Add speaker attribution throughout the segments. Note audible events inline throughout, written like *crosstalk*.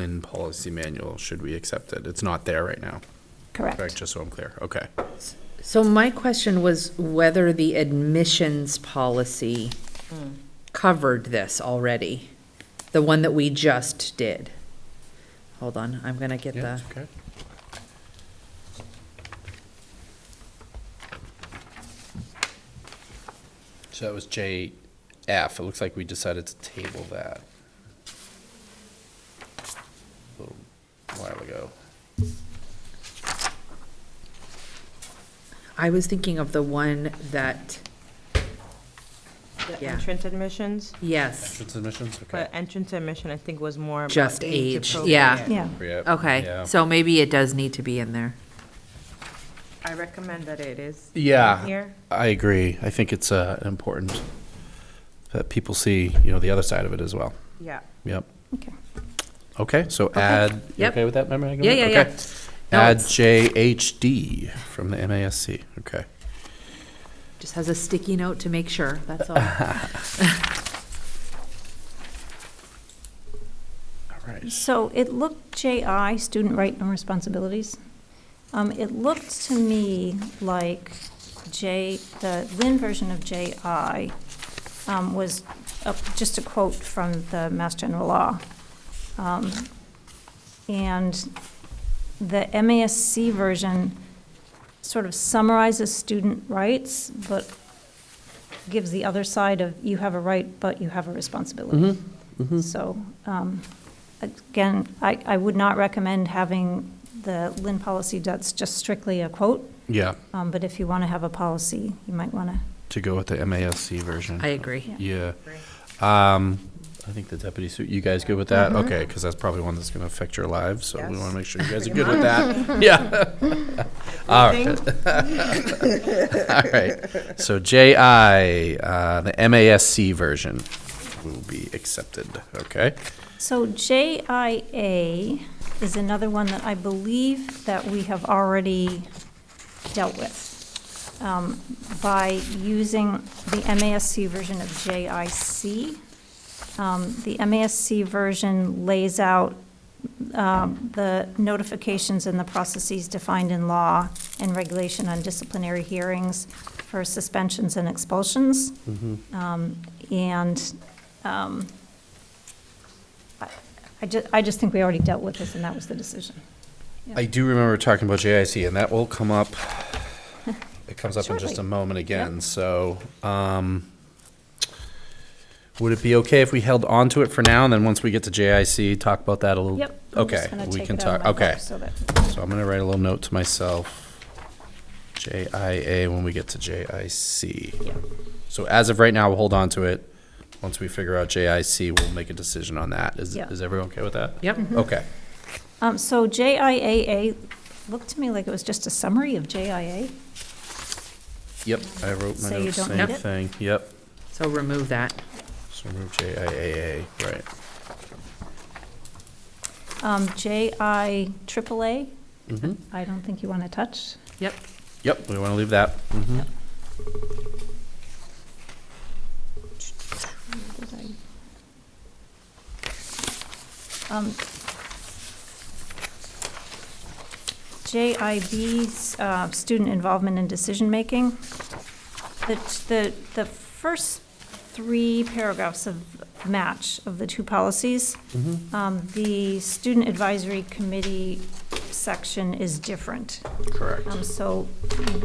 Speaker 1: in policy manual should we accept it? It's not there right now, correct?
Speaker 2: Correct.
Speaker 1: Just so I'm clear. Okay.
Speaker 3: So my question was whether the admissions policy
Speaker 1: Hmm.
Speaker 3: covered this already, the one that we just did. Hold on, I'm gonna get
Speaker 1: Yeah,
Speaker 3: the,
Speaker 1: it's okay. So that was JF. It looks like we decided to table that a little while ago.
Speaker 3: I was thinking of the one that,
Speaker 4: The
Speaker 3: Yeah.
Speaker 4: entrance admissions,
Speaker 3: yes,
Speaker 1: Entrance admissions, okay.
Speaker 4: but entrance admission, I think, was more. about
Speaker 3: Just age, yeah.
Speaker 4: appropriate.
Speaker 2: Yeah,
Speaker 1: Yep,
Speaker 3: okay,
Speaker 1: yeah.
Speaker 3: so maybe it does need to be in there.
Speaker 4: I recommend that it is.
Speaker 1: Yeah.
Speaker 4: Here,
Speaker 1: I agree. I think it's uh, important that people see, you know, the other side of it as well.
Speaker 4: yeah.
Speaker 1: Yep.
Speaker 2: okay.
Speaker 1: Okay, so add, you
Speaker 3: Yep.
Speaker 1: okay with that, member? Hageman?
Speaker 3: Yeah, yeah, yeah.
Speaker 1: Okay.
Speaker 3: No,
Speaker 1: Add
Speaker 3: it's-
Speaker 1: JHD from the MASC, okay.
Speaker 3: Just has a sticky note to make sure, that's all.
Speaker 1: All right.
Speaker 2: So it looked, JI, student right and responsibilities. Um, It looked to me like J, the Lynn version of JI um, was, a- just a quote from the Mass General Law. Um, And the MASC version sort of summarizes student rights, but gives the other side of you have a right, but you have a responsibility. So, um, again, I, I would not recommend having the Lynn policy that's just strictly a quote,
Speaker 1: Yeah,
Speaker 2: um, but if you want to have a policy, you might want to,
Speaker 1: to go with the MASC version.
Speaker 3: I agree.
Speaker 1: Yeah. Um, I think the deputy suit, you guys good with that?
Speaker 3: Mm-hmm.
Speaker 1: Okay, because that's probably one that's going to affect your lives, so we
Speaker 4: Yes.
Speaker 1: want to make sure you guys
Speaker 3: *laughs*
Speaker 1: are good with that. Yeah. All right. All right. *laughs* So JI, uh, the MASC version will be accepted, okay?
Speaker 2: So JIA is another one that I believe that we have already dealt with um, by using the MASC version of JIC. Um, The MASC version lays out um, the notifications and the processes defined in law and regulation on disciplinary hearings for suspensions and expulsions. Um, And I ju, I just think we already dealt with this, and that was the decision.
Speaker 1: I do remember talking about JIC, and that will come
Speaker 2: *laughs*
Speaker 1: up, it comes up in just a
Speaker 2: Shortly.
Speaker 1: moment again, so, um, would it be okay if we held on to it for now, and then once we get to JIC, talk about that a little?
Speaker 2: Yep. I'm just
Speaker 1: Okay,
Speaker 2: gonna
Speaker 1: we
Speaker 2: take
Speaker 1: can
Speaker 2: it out
Speaker 1: talk,
Speaker 2: of my
Speaker 1: okay,
Speaker 2: book so that-
Speaker 1: so I'm gonna write a little note to myself, JIA when we get to JIC.
Speaker 2: Yeah.
Speaker 1: So as of right now, we'll hold on to it, once we figure out JIC, we'll make a decision on that, is,
Speaker 2: Yeah. Mm-hmm.
Speaker 1: is everyone okay with that?
Speaker 3: Yep,
Speaker 1: Okay,
Speaker 2: Um, so JIAA, looked to me like it was just a summary of JIA.
Speaker 1: yep, I wrote my
Speaker 2: So you
Speaker 1: notes,
Speaker 2: don't
Speaker 1: same
Speaker 2: need it?
Speaker 1: thing, yep.
Speaker 3: so remove that.
Speaker 1: So remove JIAA, right.
Speaker 2: Um, JI triple A,
Speaker 1: Mhm.
Speaker 2: I don't think you want to touch.
Speaker 3: Yep,
Speaker 1: Yep, we want to leave that. Mhm.
Speaker 2: Where did I- Um, JIB, 's, uh, student involvement in decision-making. The, the, the first three paragraphs of match of the two policies, um, the student advisory committee section is different.
Speaker 1: Correct.
Speaker 2: Um, So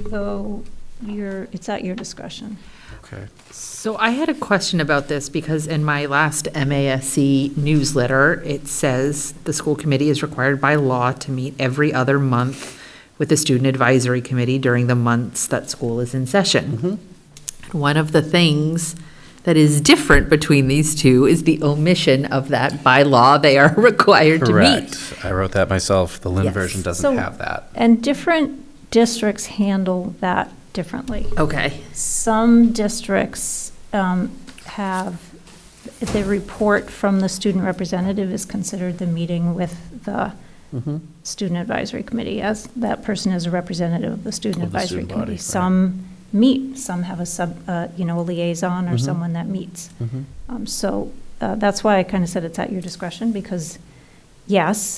Speaker 2: though you're, it's at your discretion.
Speaker 1: Okay.
Speaker 3: So I had a question about this because in my last MASC newsletter, it says the school committee is required by law to meet every other month with the student advisory committee during the months that school is in session. One of the things that is different between these two is the omission of that by law they are *laughs* required to meet.
Speaker 1: Correct. I wrote that myself. The Lynn
Speaker 3: Yes.
Speaker 1: version doesn't
Speaker 2: So-
Speaker 1: have that.
Speaker 2: And different districts handle that differently.
Speaker 3: Okay,
Speaker 2: Some districts um, have, the report from the student representative is considered the meeting with the
Speaker 1: Mm-hmm.
Speaker 2: student advisory committee, as that person is a representative of the student
Speaker 1: Of the
Speaker 2: advisory
Speaker 1: student body,
Speaker 2: committee.
Speaker 1: right.
Speaker 2: Some meet, some have a sub, uh, you know, a liaison
Speaker 1: Mm-hmm.
Speaker 2: or someone that meets. Um, So uh, that's why I kind of said it's at your discretion, because yes,